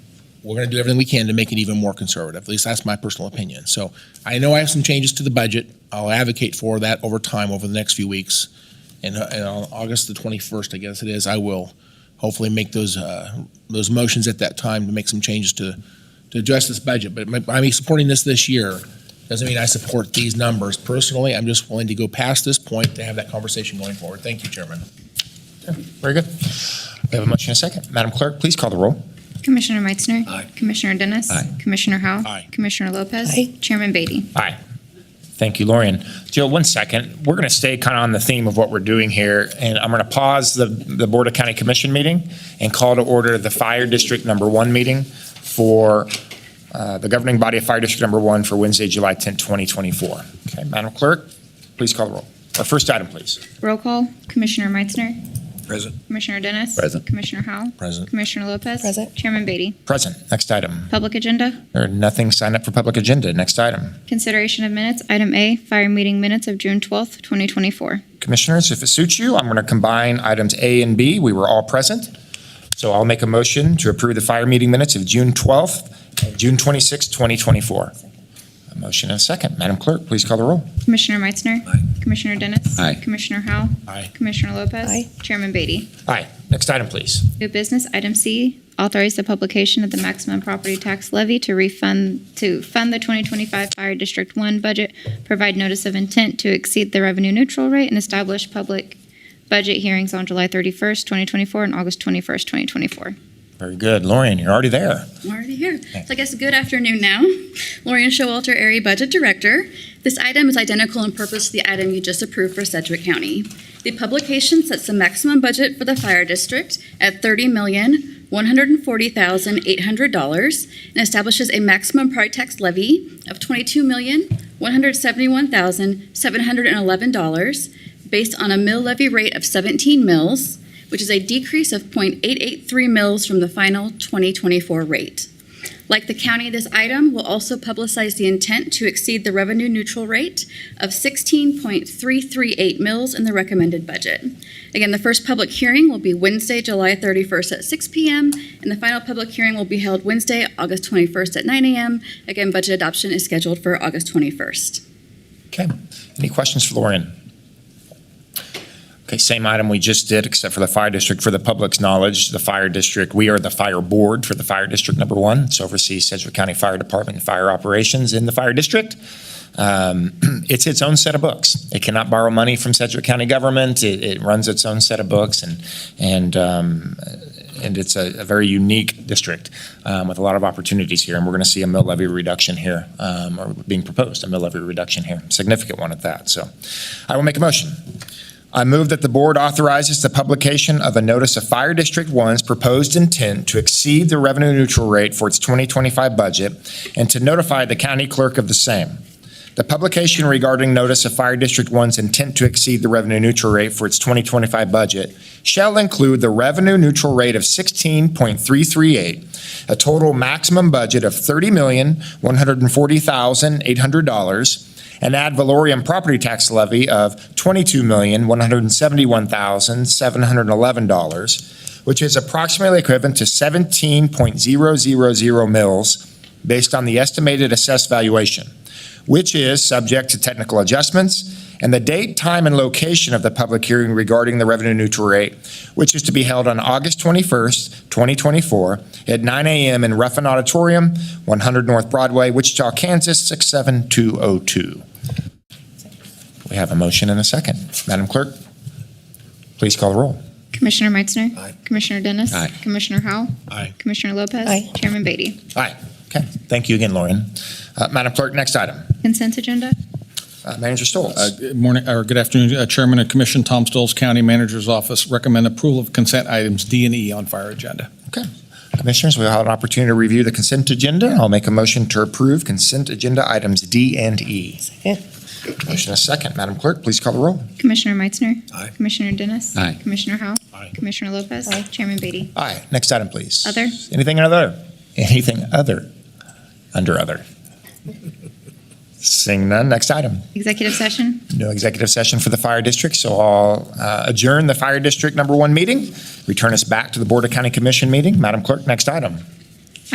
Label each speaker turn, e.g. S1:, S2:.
S1: we're going to do everything we can to make it even more conservative. At least that's my personal opinion. So I know I have some changes to the budget. I'll advocate for that over time, over the next few weeks. And, uh, and on August the 21st, I guess it is, I will hopefully make those, uh, those motions at that time to make some changes to, to address this budget. But my- by me supporting this this year doesn't mean I support these numbers personally. I'm just willing to go past this point to have that conversation going forward. Thank you, Chairman.
S2: Very good. We have a motion and a second. Madam Clerk, please call the roll.
S3: Commissioner Meitzner.
S2: Aye.
S3: Commissioner Dennis.
S2: Aye.
S3: Commissioner Howell.
S1: Aye.
S3: Commissioner Lopez.
S4: Aye.
S3: Chairman Beatty.
S2: Aye. Thank you, Lorian. Jill, one second. We're going to stay kind of on the theme of what we're doing here, and I'm going to pause the, the Board of County Commission meeting and call to order the Fire District Number One meeting for uh, the governing body of Fire District Number One for Wednesday, July 10th, 2024. Okay, Madam Clerk, please call the roll. Our first item, please.
S3: Roll call. Commissioner Meitzner.
S1: Present.
S3: Commissioner Dennis.
S5: Present.
S3: Commissioner Howell.
S1: Present.
S3: Commissioner Lopez.
S4: Present.
S3: Chairman Beatty.
S2: Present. Next item.
S3: Public agenda.
S2: There are nothing signed up for public agenda. Next item.
S3: Consideration of minutes. Item A, fire meeting minutes of June 12th, 2024.
S2: Commissioners, if it suits you, I'm going to combine items A and B. We were all present. So I'll make a motion to approve the fire meeting minutes of June 12th and June 26th, 2024. A motion and a second. Madam Clerk, please call the roll.
S3: Commissioner Meitzner. Commissioner Dennis.
S5: Aye.
S3: Commissioner Howell.
S1: Aye.
S3: Commissioner Lopez.
S4: Aye.
S3: Chairman Beatty.
S2: Aye. Next item, please.
S3: New business, item C, authorize the publication of the maximum property tax levy to refund, to fund the 2025 Fire District 1 budget, provide notice of intent to exceed the revenue neutral rate, and establish public budget hearings on July 31st, 2024, and August 21st, 2024.
S2: Very good. Lorian, you're already there.
S6: We're already here. So I guess good afternoon now. Lorian Showalter, Area Budget Director. This item is identical in purpose to the item you just approved for Sedgwick County. The publication sets the maximum budget for the fire district at thirty million, one hundred and forty thousand, eight hundred dollars and establishes a maximum property tax levy of twenty-two million, one hundred seventy-one thousand, seven hundred and eleven dollars based on a mill levy rate of seventeen mills which is a decrease of 0.883 mils from the final 2024 rate. Like the county, this item will also publicize the intent to exceed the revenue neutral rate of 16.338 mils in the recommended budget. Again, the first public hearing will be Wednesday, July 31st at 6 PM, and the final public hearing will be held Wednesday, August 21st at 9 AM. Again, budget adoption is scheduled for August 21st.
S2: Okay. Any questions for Lorian? Okay, same item we just did, except for the fire district. For the public's knowledge, the fire district, we are the fire board for the fire district number one. It's oversees Sedgwick County Fire Department and fire operations in the fire district. Um, It's its own set of books. It cannot borrow money from Sedgwick County government. It, it runs its own set of books and, and, um, and it's a, a very unique district um, with a lot of opportunities here. And we're going to see a mill levy reduction here, um, or being proposed, a mill levy reduction here, significant one at that. So I will make a motion. I move that the board authorizes the publication of a notice of Fire District One's proposed intent to exceed the revenue neutral rate for its 2025 budget and to notify the county clerk of the same. The publication regarding notice of Fire District One's intent to exceed the revenue neutral rate for its 2025 budget shall include the revenue neutral rate of 16.338, a total maximum budget of $30,140,800, an ad valorem property tax levy of $22,171,711, which is approximately equivalent to 17.000 mills based on the estimated assessed valuation, which is subject to technical adjustments, and the date, time, and location of the public hearing regarding the revenue neutral rate, which is to be held on August 21st, 2024, at 9 a.m. in Ruffin Auditorium, 100 North Broadway, Wichita, Kansas, 67202. We have a motion and a second. Madam Clerk, please call the roll.
S3: Commissioner Meitzner.
S1: Aye.
S3: Commissioner Dennis.
S5: Aye.
S3: Commissioner Howell.
S1: Aye.
S3: Commissioner Lopez.
S4: Aye.
S3: Chairman Beatty.
S2: Okay, thank you again, Lauren. Uh, Madam Clerk, next item.
S3: Consent agenda.
S2: Uh, Manager Stoles.
S7: Uh, Good morning, or good afternoon, uh, Chairman of Commission, Tom Stoles, County Manager's Office. Recommend approval of consent items D and E on fire agenda.
S2: Commissioners, we'll have an opportunity to review the consent agenda. I'll make a motion to approve consent agenda items D and E.
S4: Second.
S2: Motion is second. Madam Clerk, please call the roll.
S3: Commissioner Meitzner.
S1: Aye.
S3: Commissioner Dennis.
S5: Aye.
S3: Commissioner Howell.
S1: Aye.
S3: Commissioner Lopez.
S4: Aye.
S3: Chairman Beatty.
S2: Aye. Next item, please.
S3: Other.
S2: Anything other? Anything other? Under other. Seeing none. Next item.
S3: Executive session.
S2: No executive session for the fire district, so I'll uh, adjourn the fire district number one meeting. Return us back to the Board of County Commission meeting. Madam Clerk, next item.